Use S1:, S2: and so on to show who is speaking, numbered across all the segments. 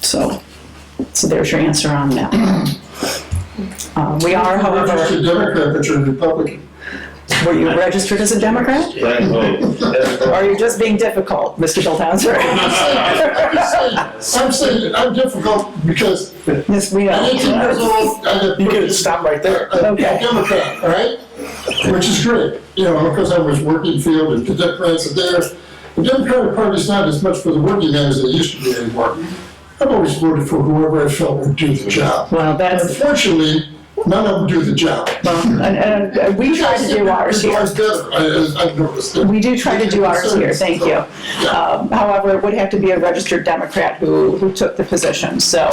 S1: So, so there's your answer on that. Uh, We are,
S2: Not just a
S1: however,
S2: Democrat, but you're a Republican.
S1: were you registered as a Democrat?
S3: Right, well, that's-
S1: Or are you just being difficult, Mr. Bill Townsend?
S2: I'm saying- I'm saying, I'm saying, I'm difficult because at
S1: Yes, we
S2: eighteen years
S1: are.
S2: old, I got.
S4: You could stop right there.
S2: I'm
S1: Okay.
S2: Democrat, all right? Which is great, you know, because I was working field and the Democrats are there. The Democratic Party's not as much for the working man as they used to be anymore. I've always voted for whoever I felt would do the job.
S1: Well, that's,
S2: Unfortunately, none of them do the job.
S1: well, and, and uh, we try to do ours here.
S2: Mine's better, I, I- I've noticed that.
S1: We do try to do ours here, thank you. Um, However, it would have to be a registered Democrat who, who took the position. So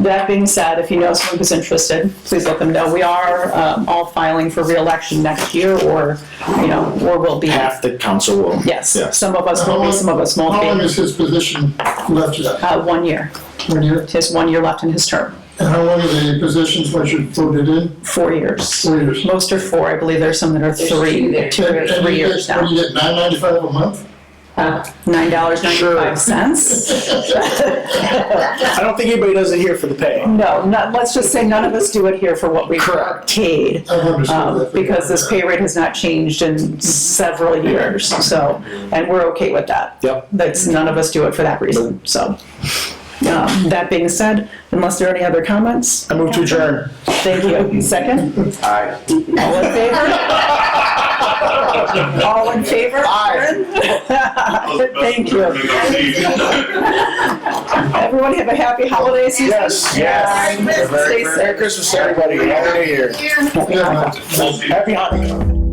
S1: that being said, if you know someone who's interested, please let them know. We are um, all filing for reelection next year or, you know, or will be.
S4: Half the council will.
S1: Yes, some of us will be, some of us
S2: How long
S1: won't be.
S2: is his position left yet?
S1: Uh, One year.
S2: One year?
S1: He has one year left in his term,
S2: And how long are the positions once you voted in?
S1: four years.
S2: Four years.
S1: Most are four, I believe there's some that are three, two or
S2: And- and
S1: three
S2: you
S1: years
S2: get- What
S1: now.
S2: do you get, nine ninety-five a month?
S1: Nine dollars ninety-five cents.
S4: I don't think anybody does it here for the pay.
S1: No, not, let's just say none of us do it here for what we are paid.
S2: I've understood
S1: um,
S2: that.
S1: Because this pay rate has not changed in several years, so, and we're okay with that.
S4: Yep.
S1: That's, none of us do it for that reason, so. Um, That being said, unless there are any other comments,
S4: I move to adjourn.
S1: thank you. Second?
S4: Aye.
S1: All in favor? All in favor? Aye. Thank you. Everyone have a happy holiday season.
S4: Yes,
S1: Merry
S4: yes.
S1: Christmas. Stay safe.
S4: Merry Christmas, everybody. Happy New Year.
S2: Yeah,
S4: Happy hunting.